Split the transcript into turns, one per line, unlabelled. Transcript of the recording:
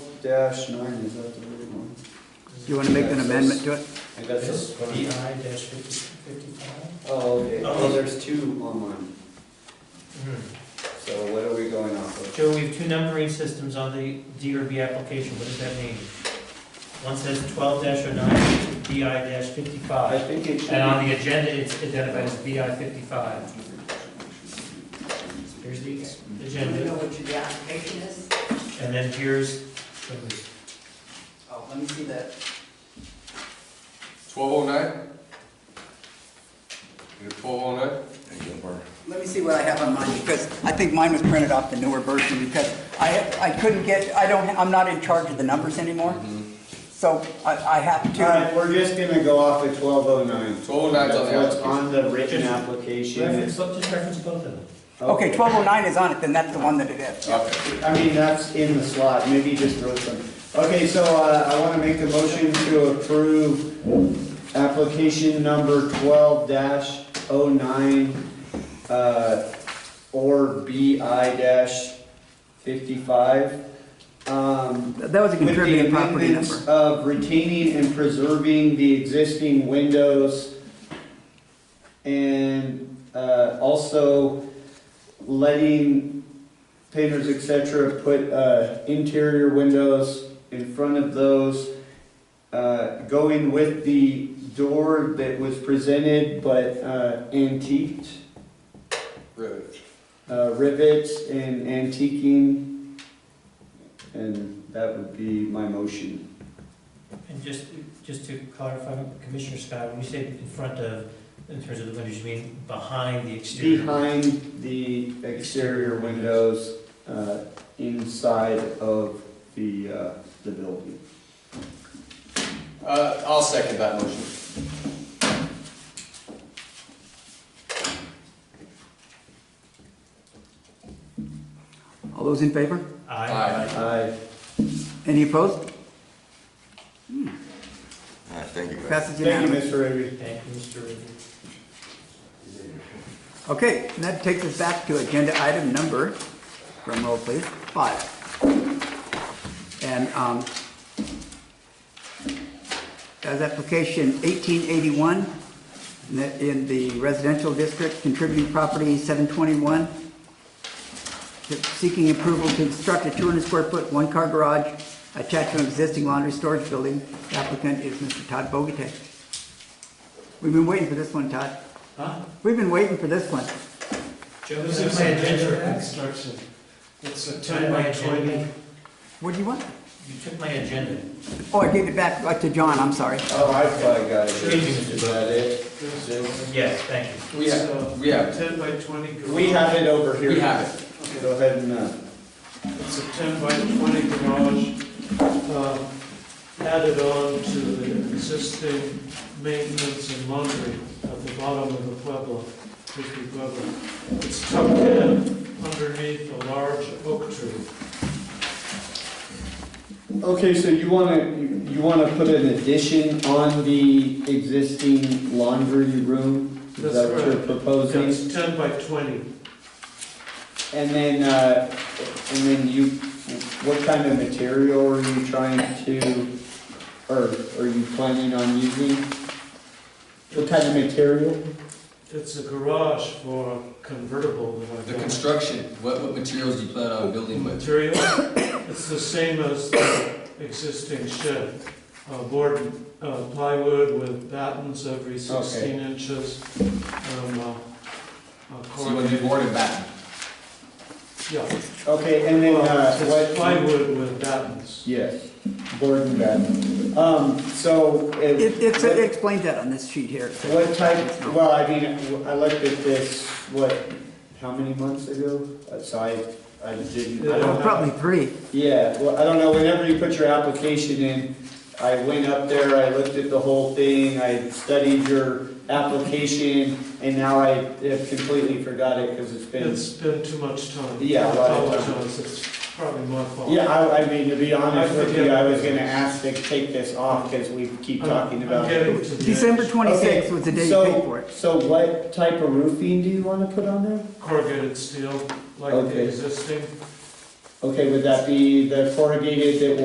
dash nine, is that the right one?
Do you want to make an amendment to it?
I got this.
DI dash fifty-five?
Oh, okay, well, there's two online, so what are we going off of?
Joe, we have two numbering systems on the DRB application, what does that mean? One says twelve dash oh nine, DI dash
I
fifty-five,
think it should.
and on the agenda, it's identified as BI fifty-five. Here's the
Do you
agenda,
know what your application is?
and then here's,
Oh, let me see that.
Twelve oh nine? twelve oh nine?
Let me see what I have on mine, because I think mine was printed off the newer version, because I, I couldn't get, I don't, I'm not in charge of the numbers anymore. So I, I have
Mm-hmm. All right,
to,
we're just gonna go off of twelve oh nine.
1209 's on the
That's what's on the written application.
reference, just reference both of them.
oh
okay, 1209 is on it, then that's the one that it is.
Okay.
I mean, that's in the slot, maybe you just wrote some. Okay, so uh, I want to make a motion to approve application number twelve dash oh nine, uh, or BI dash fifty-five. Um,
That was a
with the
contributing property number.
amendments of retaining and preserving the existing windows and uh, also letting painters, et cetera, put uh, interior windows in front of those, uh, going with the door that was presented but uh, antiqued,
Rivet.
uh, rivets and antiquing. And that would be my motion.
And just, just to clarify, Commissioner Scott, when you say in front of, in terms of the windows, you mean behind the exterior?
Behind the exterior windows, uh, inside of the, uh, the building.
Uh, I'll second that motion.
All those in favor?
Aye.
I,
Any opposed?
All right, thank you. guys.
Passes
thank you,
unanimously.
Mr. Avery.
Thank you, Mr. Ridley.
Okay, and that takes us back to agenda item number, drum roll please, five. And, um, as application eighteen eighty-one, in the residential district, contributing property seven twenty-one, seeking approval to construct a two hundred square foot, one-car garage attached to an existing laundry storage building. The Applicant is Mr. Todd Bogatay. We've been waiting for this one, Todd.
Huh?
We've been waiting for this one.
Joe,
This
is
is
my agenda.
a construction. It's a
You took
ten
my
by
agenda.
twenty.
What do you want?
You took my agenda.
Oh, I gave it back uh, to John, I'm sorry.
Oh, I probably got it.
Thank you, Mr.
Is that it?
Yes, thank you.
We have, we have,
Ten by twenty garage.
We have it over here.
we have it.
Go ahead and, uh,
It's a ten by twenty garage, um, added on to the existing maintenance and laundry at the bottom of the Pueblo, Hickory Pueblo. It's tucked in underneath a large oak tree.
okay, so you wanna, you- you wanna put an addition on the existing laundry room? Is
That's
that what you're
correct.
proposing?
It's ten by twenty.
And then, uh, and then you, what kind of material are you trying to, or are you planning on using? What kind of material?
It's a garage for a convertible that I've
The
got.
construction, what, what materials do you plan on building with?
material. It's the same as the existing shed, Uh, board, uh, plywood with battens every 16 inches. um, uh, uh,
So you want to do
corrugated-
board and batten?
Yeah.
Okay, and then, uh,
Well,
what?
it's Plywood with battens.
Yes, board and batten. Um, so.
It, it's, it explains that on this sheet here.
What type, well, I mean, I looked at this, what, how many months ago? Uh, So I, I didn't, I
Oh,
don't
Probably three.
Yeah, well, I don't know, whenever you put your application in, I went up there, I looked at the whole thing, I studied your application, and now I have completely forgot it, because it's been,
It's been too much time.
Yeah,
I
a lot of time.
apologize, it's probably my fault.
yeah, I, I mean, to be honest
I
with you,
forget.
I was gonna ask to take this off, because we keep
I'm-
talking
I'm
about it.
getting to the
December
edge.
twenty-sixth was the day you paid for it.
So what type of roofing do you wanna put on there?
Corrugated steel, like
Okay.
the existing.
Okay, would that be the corrugated that